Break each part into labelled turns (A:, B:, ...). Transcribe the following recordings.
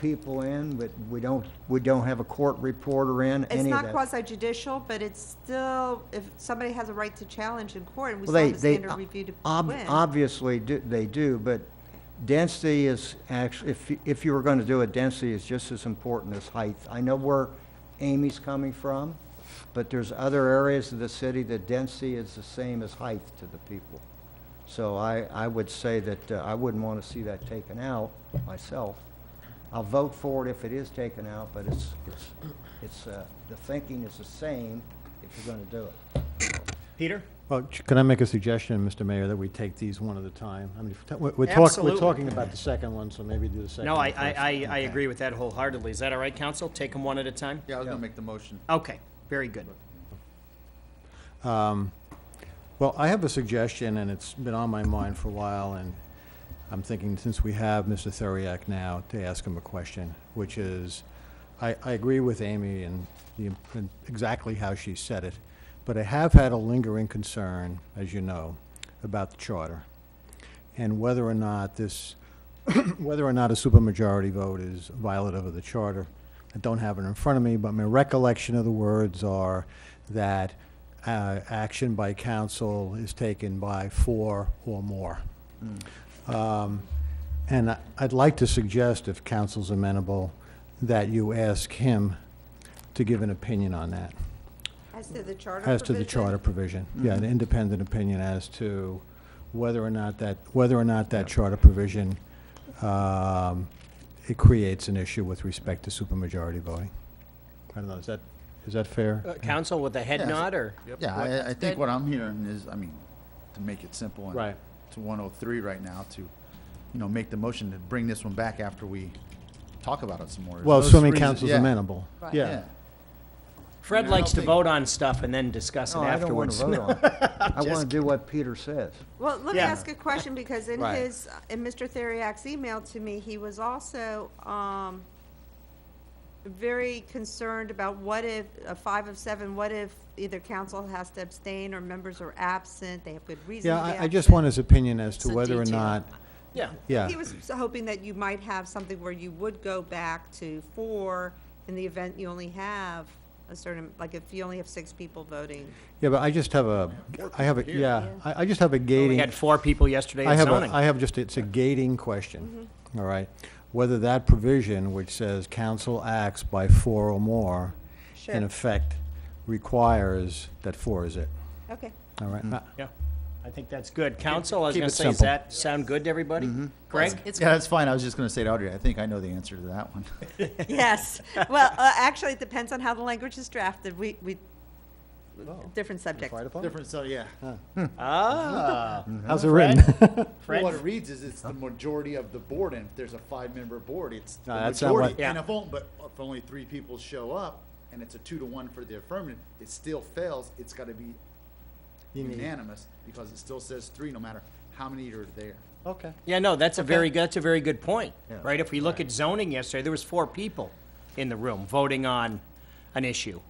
A: people in, but we don't, we don't have a court reporter in,
B: It's
A: any of
B: not
A: that.
B: quasi judicial, but it's still, if somebody has a right to challenge in court, and we
A: Well, they,
B: still have a
A: they,
B: standard review to
A: ob-
B: win.
A: obviously, do- they do, but density is actually, if, you- if you were gonna do it, density is just as important as height. I know where Amy's coming from, but there's other areas of the city that density is the same as height to the people. So I, I would say that uh, I wouldn't wanna see that taken out myself. I'll vote for it if it is taken out, but it's, it's, it's, uh, the thinking is the same if you're gonna do it.
C: Peter?
D: Well, ch- can I make a suggestion, Mr. Mayor, that we take these one at a time? I mean, if ta- we're- we're talking, we're
C: Absolutely.
D: talking about the second one, so maybe do the second
C: No, I,
D: one
C: I,
D: first.
C: I, I agree with that wholeheartedly. Is that all right, council? Take them one at a time?
E: Yeah, I was gonna make the motion.
C: Okay, very good.
D: Uh, Well, I have a suggestion, and it's been on my mind for a while, and I'm thinking, since we have Mr. Theriak now, to ask him a question, which is, I, I agree with Amy and the, imp- and exactly how she said it, but I have had a lingering concern, as you know, about the charter, and whether or not this, whether or not a supermajority vote is violative of the charter. I don't have it in front of me, but my recollection of the words are that uh, action by council is taken by four or more. Um, And I- I'd like to suggest, if council's amenable, that you ask him to give an opinion on that,
B: As to the charter
D: as to the
B: provision,
D: charter provision. Yeah, an independent opinion as to whether or not that, whether or not that charter provision, um, it creates an issue with respect to supermajority voting. I don't know, is that, is that fair?
C: Uh, Council with a head
E: Yes.
C: nod, or?
E: Yeah, I, I think what I'm hearing is, I mean, to make it simple and
D: Right.
E: to one oh three right now to, you know, make the motion to bring this one back after we talk about it some more.
D: Well,
E: Those
D: assuming
E: three-
D: council's
E: yeah,
D: amenable.
B: Right.
D: Yeah.
E: Yeah.
C: Fred
E: No, I
C: likes to
E: don't think-
C: vote on stuff and then discuss it
A: No, Oh, I don't wanna
C: afterwards.
A: vote on it. I wanna do what Peter says.
B: Well, let me
C: Yeah.
B: ask a question, because in
D: Right.
B: his, in Mr. Theriak's email to me, he was also, um, very concerned about what if, a five of seven, what if either council has to abstain, or members are absent, they have good reason to
D: Yeah,
B: be
D: I, I just
B: absent.
D: want his opinion as
F: It's
D: to
F: a
D: whether or
F: detail.
D: not,
C: Yeah.
D: yeah.
B: He was hoping that you might have something where you would go back to four in the event you only have a certain, like if you only have six people voting.
D: Yeah, but I just have a, I have a, yeah, I, I just have a
C: We
D: gating.
C: had four people yesterday
D: I
C: at
D: have, a-
C: zoning.
D: I have just, it's a gating question, all right? Whether that provision, which says council acts by four or more, in
B: Sure.
D: effect, requires that four is it,
B: Okay.
D: all right? Uh,
C: Yeah, I think that's good. Council, I was
D: keep
C: gonna
D: it
C: say, does
D: simple. Mm-hmm.
C: that sound good to everybody? Greg?
F: It's,
E: Yeah, that's fine. I was just gonna say to Audrey, I think I know the answer to that one.
B: Yes. Well, uh, actually, it depends on how the language is drafted. We, we,
C: Oh.
B: different subject.
D: right upon?
E: Different, so, yeah.
C: Ah,
D: How's it written?
C: Fred?
E: What it reads is it's the majority of the board, and if there's a five-member board, it's the
D: No, that's not what-
E: majority.
C: Yeah.
E: And if only, but if only three people show up, and it's a two-to-one for the affirmative, it still fails. It's gotta be unanimous, because it still says three, no matter how many are there.
D: Okay.
C: Yeah, no, that's a very, good- that's a very good point,
A: Yeah.
C: right? If we look at zoning yesterday, there was four people in the room voting on an issue.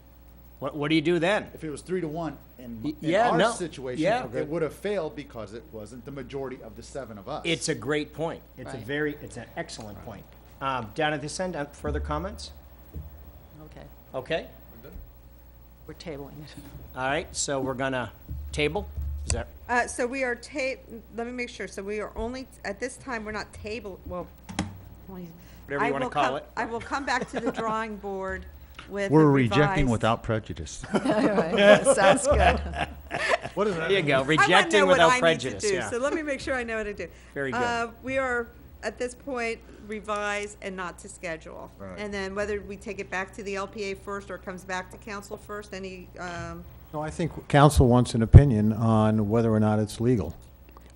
C: What, what do you do then?
E: If it was three to one in,
C: Y-
E: in
C: yeah,
E: our
C: no,
E: situation,
C: yeah.
E: it would have failed because it wasn't the majority of the seven of us.
C: It's a great point. It's a
F: Right.
C: very, it's an excellent point. Um, down at this end, uh, further comments?
F: okay,
C: Okay,
F: we're tabling it.
C: all right, so we're gonna table, is that,
B: Uh, so we are ta, let me make sure. So we are only, at this time, we're not table, well.
C: Whatever you
B: I
C: wanna
B: will
C: call
B: come-
C: it.
B: I will come back to the drawing board with. a
G: We're rejecting
B: revised-
G: without prejudice.
F: Sounds good.
D: What is
C: there you go,
B: I wanna know
C: rejecting
B: what I
C: without
B: need to
C: prejudice,
B: do,
C: yeah.
B: So let me make sure I know what to do.
C: Very good.
B: Uh, We are, at this point, revise and not to schedule. And then whether we take it back to the LPA first or it comes back to council first, any, um,
D: No, I think council wants an opinion on whether or not it's legal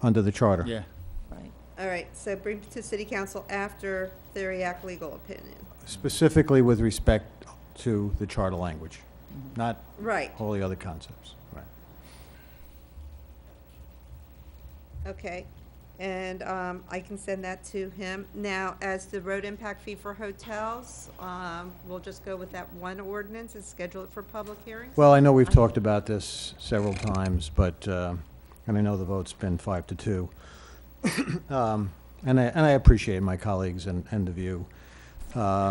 D: under the charter.
E: yeah.
F: Right.
B: all right, so bring to city council after Theriak legal opinion.
D: Specifically with respect to the charter language, not
B: Right,
D: all the other concepts. Right.
B: okay. And um, I can send that to him. Now, as the road impact fee for hotels, um, we'll just go with that one ordinance and schedule it for public hearings?
D: Well, I know we've talked about this several times, but, uh, and I know the vote's been five to two. Um, And I, and I appreciate my colleagues and, and the view Uh,